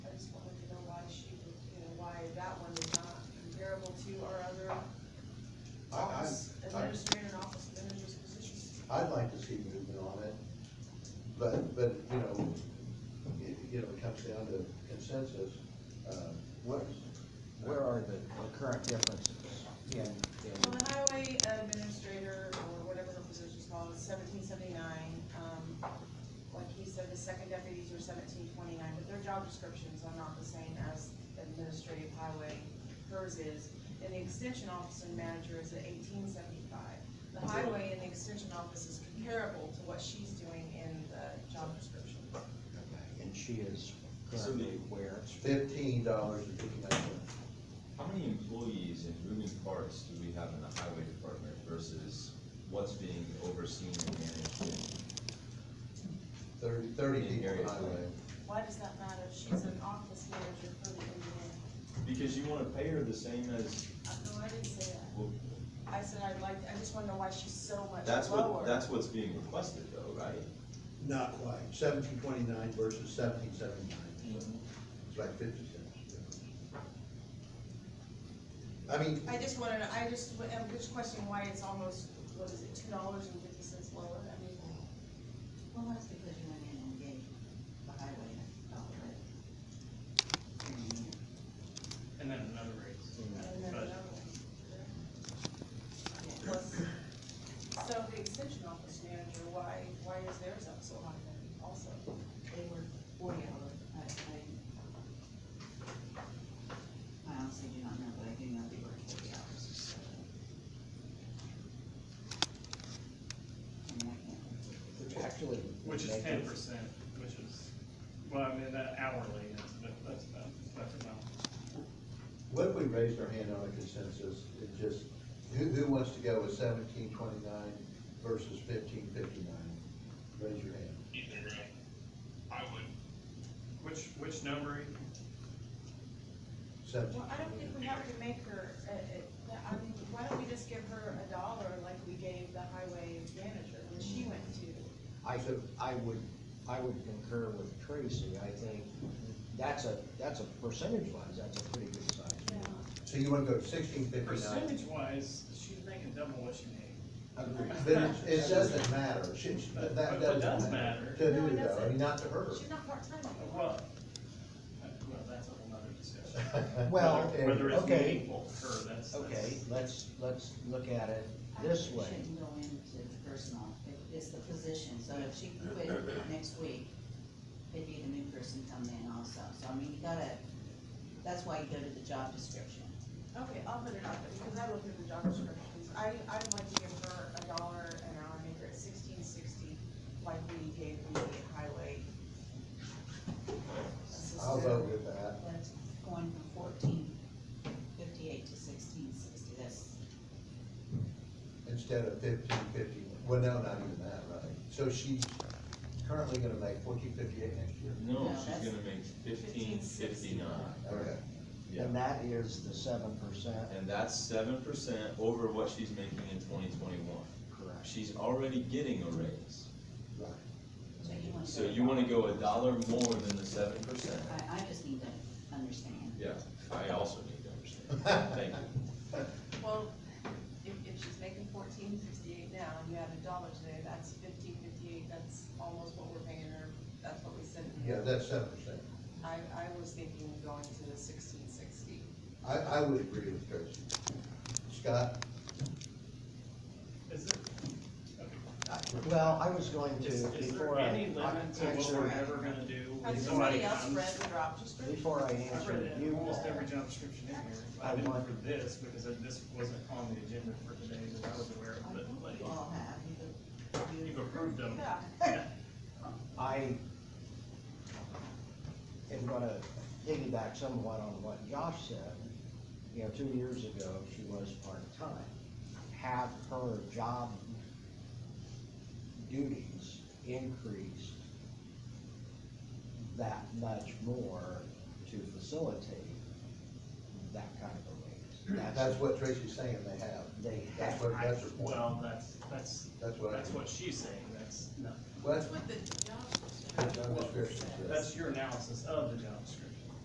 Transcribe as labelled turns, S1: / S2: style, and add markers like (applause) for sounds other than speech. S1: comparable to our other
S2: I, I,
S1: office administrator and office manager's positions.
S2: I'd like to see movement on it, but, but, you know, it, you know, it comes down to consensus, uh,
S3: Where, where are the the current differences in,
S1: Well,
S3: in,
S1: the highway administrator, or whatever her position's called, is seventeen seventy-nine, um, like he said, the second deputies are seventeen twenty-nine, but their job descriptions are not the same as administrative highway, hers is. And the extension office and manager is at eighteen seventy-five. The highway and the extension office is comparable to what she's doing in the job description.
S3: and she is currently where?
S2: fifteen dollars and fifty-nine cents.
S4: How many employees and moving parts do we have in the highway department versus what's being overseen and managed?
S2: Thirty, thirty
S4: In
S2: people
S4: areas
S2: highway.
S1: Why does that matter? She's an office manager for the Indian.
S4: in- Because you wanna pay her the same as,
S1: Uh, No, I didn't say that.
S4: well,
S1: I said I'd like, I just wanna know why she's so much
S4: that's what,
S1: lower.
S4: that's what's being requested though, right?
S2: Not quite. Seventeen twenty-nine versus seventeen seventy-nine,
S4: Mm-hmm.
S2: so it's like fifty cents. I mean,
S1: I just wanna, know- I just, I'm just questioning why it's almost, what is it, two dollars and fifty cents lower? I mean,
S5: Well, that's because you went in and gave the highway a dollar raise.
S6: And then another raise.
S1: and then
S6: But-
S1: another one. Plus, so the extension office manager, why, why is theirs up so high then also?
S5: They were forty hours, I, I, I honestly do not know, but I do know they were forty hours, so. And I can't,
S3: Which actually.
S6: Which is
S3: make
S6: ten
S3: it-
S6: percent, which is, well, I mean, that hourly, that's, about- that's about, that's about.
S2: what if we raised our hand on a consensus and just, who, who wants to go with seventeen twenty-nine versus fifteen fifty-nine? Raise your hand.
S6: Either way, I would. Which, which number?
S2: Seventeen.
S1: Well, I don't think we have to make her, uh, uh, I mean, why don't we just give her a dollar like we gave the highway manager when she went to?
S3: I, I would, I would concur with Tracy, I think that's a, that's a percentage wise, that's a pretty good size.
S2: So you wanna go sixteen fifty-nine?
S6: Percentage wise, she's making double what she made.
S3: Agreed.
S2: But it, it doesn't matter, she, she-
S6: But-
S2: that, that
S6: but it does
S2: doesn't matter.
S6: matter.
S2: To
S1: No,
S2: who
S1: it
S2: though, I
S1: doesn't.
S2: mean, not to her. (laughs)
S1: She's not part-time anymore.
S6: Oh, Well, uh, well, that's a whole nother discussion.
S3: Well,
S2: Okay.
S6: Whether it's
S3: okay.
S6: meaningful to her, that's, that's.
S3: Okay, let's, let's look at it
S5: I
S3: this
S5: think we
S3: way.
S5: Shouldn't go into the personal, It- it's the position, so if she quit next week, it'd be the new person coming in also, so I mean, you gotta, that's why you go to the job description.
S1: Okay, I'll put it up, because I looked at the job descriptions. I, I'd like to give her a dollar an hour, make her at sixteen sixty, like we gave the highway.
S2: I'll vote with that.
S5: That's going from fourteen fifty-eight to sixteen sixty, that's,
S2: Instead of fifteen fifty, well, no, not even that, right? So she's currently gonna make fourteen fifty-eight next year.
S4: No,
S5: No, that's-
S4: she's gonna make fifteen fifty-nine.
S2: Okay,
S4: Yeah,
S3: And that is the seven percent.
S4: and that's seven percent over what she's making in twenty twenty-one.
S3: Correct.
S4: She's already getting a raise,
S2: right.
S5: so you wanna.
S4: so you wanna go a dollar more than the seven percent?
S5: I, I just need to understand.
S4: Yeah, I also need to understand, thank you.
S2: (laughs)
S1: Well, if, if she's making fourteen sixty-eight now, and you add a dollar today, that's fifteen fifty-eight, that's almost what we're paying her, that's what we said.
S2: Yeah, that's seven percent.
S1: I, I was thinking of going to the sixteen sixty.
S2: I, I would agree with Tracy. Scott,
S6: Is there, okay.
S3: Well, I was going to,
S6: Is, is there
S3: before I.
S6: any limit to what we're ever gonna do when
S1: Has
S6: somebody
S1: somebody else
S6: comes?
S1: read the job description?
S3: Before I
S6: I've read
S3: answer
S6: it in
S3: you
S6: almost
S3: all,
S6: every job description in here, but
S3: I
S6: I didn't
S3: want-
S6: for this, because I- this wasn't on the agenda for today, that I was aware
S5: I
S6: of, but
S5: think
S6: like,
S5: we all have, you've-
S6: you've approved them.
S1: Yeah.
S3: I am gonna piggyback somewhat on what Josh said. You know, two years ago, she was part-time. Have her job duties increased that much more to facilitate that kind of a raise.
S2: that's what Tracy's saying they have.
S3: They
S2: That's
S3: have.
S2: what, that's her point.
S6: Well, that's, that's,
S2: That's what I.
S6: that's what she's saying, that's,
S2: Well,
S1: That's what the job description.
S2: that's what the job description says.
S6: that's your analysis of the job description.